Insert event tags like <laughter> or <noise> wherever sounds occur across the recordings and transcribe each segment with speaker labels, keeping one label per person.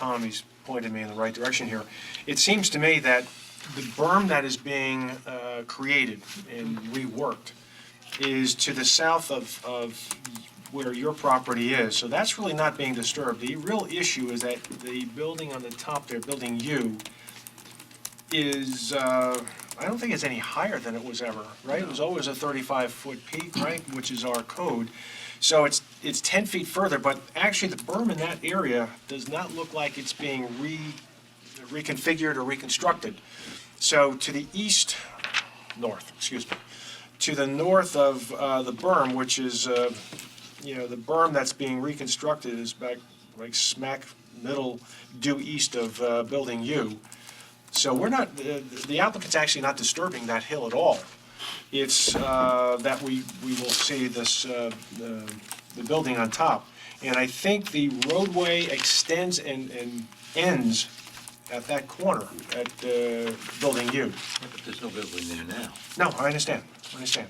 Speaker 1: Tommy's pointed me in the right direction here. It seems to me that the berm that is being uh, created and reworked is to the south of, of where your property is, so that's really not being disturbed. The real issue is that the building on the top there, Building U, is, uh, I don't think it's any higher than it was ever, right? It was always a 35-foot peak, right, which is our code. So it's, it's 10 feet further, but actually the berm in that area does not look like it's being re reconfigured or reconstructed. So to the east, north, excuse me, to the north of uh, the berm, which is, uh, you know, the berm that's being reconstructed is back, like smack middle due east of uh, Building U. So we're not, the the applicant's actually not disturbing that hill at all. It's uh, that we, we will see this, uh, the the building on top. And I think the roadway extends and, and ends at that corner, at uh, Building U.
Speaker 2: But there's no building there now.
Speaker 1: No, I understand, I understand.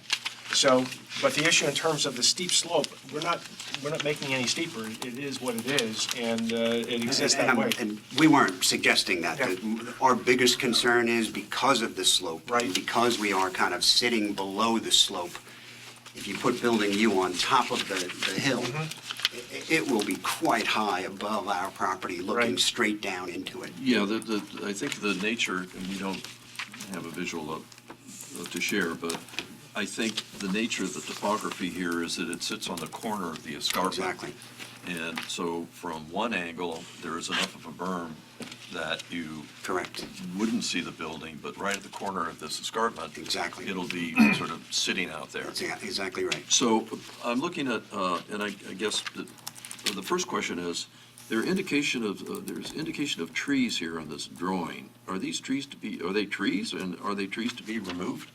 Speaker 1: So, but the issue in terms of the steep slope, we're not, we're not making any steeper. It is what it is, and uh, it exists that
Speaker 3: And-
Speaker 1: way.
Speaker 3: And we weren't suggesting that.
Speaker 1: Yeah.
Speaker 3: The- Our biggest concern is because of the slope.
Speaker 1: Right.
Speaker 3: and Because we are kind of sitting below the slope, if you put Building U on top of the, the hill,
Speaker 1: Mm-hmm.
Speaker 3: i- i- it will be quite high above our property, looking
Speaker 1: Right.
Speaker 3: straight down into it.
Speaker 4: Yeah, the, the, I think the nature, and we don't have a visual up, up to share, but I think the nature of the topography here is that it sits on the corner of the escarpment.
Speaker 3: Exactly.
Speaker 4: And so from one angle, there is enough of a berm that you
Speaker 3: Correct.
Speaker 4: wouldn't see the building, but right at the corner of this escarpment.
Speaker 3: Exactly.
Speaker 4: It'll be sort of sitting out there.
Speaker 3: That's exa- exactly right.
Speaker 4: So I'm looking at, uh, and I I guess the the first question is, there indication of, uh, there's indication of trees here on this drawing. Are these trees to be, are they trees and are they trees to be removed?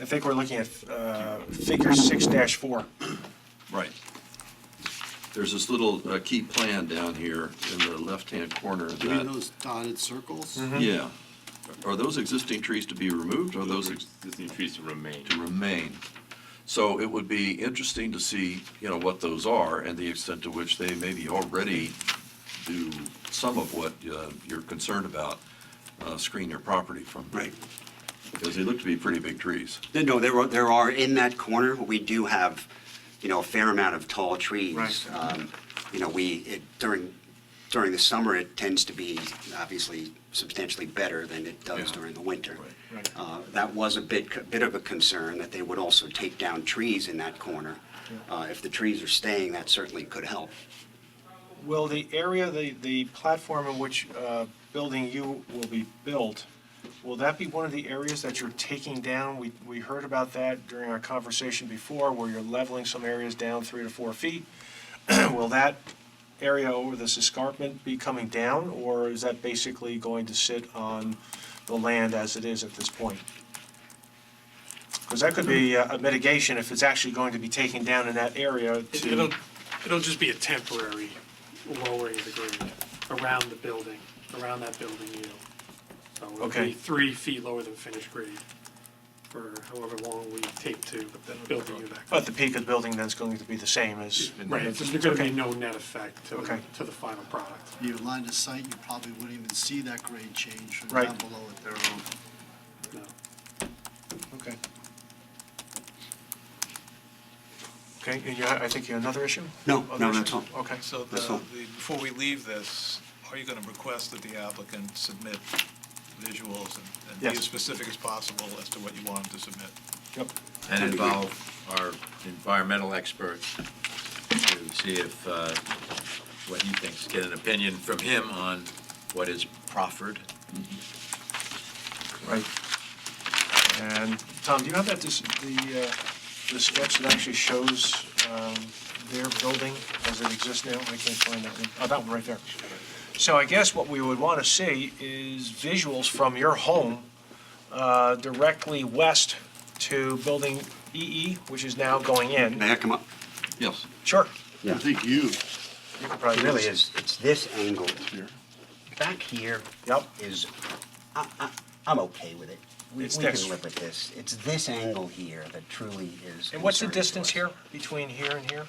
Speaker 1: I think we're looking at uh, figure six dash four.
Speaker 4: Right. There's this little uh, key plan down here in the left-hand corner of
Speaker 5: You mean
Speaker 4: that.
Speaker 5: those dotted circles?
Speaker 1: Mm-hmm.
Speaker 4: Yeah. Are those existing trees to be removed or are those ex-
Speaker 6: existing trees to remain.
Speaker 4: to remain? So it would be interesting to see, you know, what those are and the extent to which they maybe already do some of what uh, you're concerned about, uh, screen your property from.
Speaker 3: Right.
Speaker 4: Because they look to be pretty big trees.
Speaker 3: There- No, there are, there are, in that corner, we do have, you know, a fair amount of tall trees.
Speaker 1: Right.
Speaker 3: Um, You know, we, it- during, during the summer, it tends to be obviously substantially better than it does
Speaker 4: Yeah.
Speaker 3: during the winter.
Speaker 4: Right.
Speaker 1: Right.
Speaker 3: Uh, That was a bit, bit of a concern, that they would also take down trees in that corner. Uh, If the trees are staying, that certainly could help.
Speaker 1: Will the area, the, the platform in which uh, Building U will be built, will that be one of the areas that you're taking down? We, we heard about that during our conversation before, where you're leveling some areas down three to four feet. <clears throat> Will that area over this escarpment be coming down, or is that basically going to sit on the land as it is at this point? Because that could be uh, a mitigation if it's actually going to be taken down in that area
Speaker 7: It-
Speaker 1: to.
Speaker 7: It'll, it'll just be a temporary lowering of the grade around the building, around that building you know. So it'll
Speaker 1: Okay.
Speaker 7: be three feet lower than finished grade for however long we take to build the new back.
Speaker 1: But the peak of the building then's going to be the same as.
Speaker 7: Right, it's- there's gonna
Speaker 1: Okay.
Speaker 7: be no net effect to, the-
Speaker 1: Okay.
Speaker 7: to the final product.
Speaker 5: Your line of sight, you probably wouldn't even see that grade change from
Speaker 1: Right.
Speaker 5: down below it there.
Speaker 7: No.
Speaker 1: Okay. Okay, and you, I think you have another issue?
Speaker 3: No,
Speaker 1: Other
Speaker 3: no,
Speaker 1: issue?
Speaker 3: that's all.
Speaker 1: Okay.
Speaker 8: So the,
Speaker 3: That's all.
Speaker 8: the- before we leave this, are you going to request that the applicant submit visuals and- and be
Speaker 1: Yes.
Speaker 8: as specific as possible as to what you want him to submit?
Speaker 1: Yep.
Speaker 2: And
Speaker 3: That'd be great.
Speaker 2: involve our environmental expert to see if, uh, what he thinks, get an opinion from him on what is proffered.
Speaker 1: Right. And Tom, do you have that, this, the, uh, the sketch that actually shows, um, their building as it exists now? I can't find that one. Oh, that one right there. So I guess what we would want to see is visuals from your home, uh, directly west to building EE, which is now going in.
Speaker 3: May I come up?
Speaker 4: Yes.
Speaker 1: Sure.
Speaker 5: I think you,
Speaker 1: You could probably
Speaker 3: It
Speaker 1: do
Speaker 3: really
Speaker 1: this.
Speaker 3: is, it's this angle. Back here
Speaker 1: Yep.
Speaker 3: is, I, I, I'm okay with it. We we
Speaker 1: It's
Speaker 3: can
Speaker 1: this.
Speaker 3: live with this. It's this angle here that truly is
Speaker 1: And what's the
Speaker 3: concerning to
Speaker 1: distance
Speaker 3: us.
Speaker 1: here, between here and here?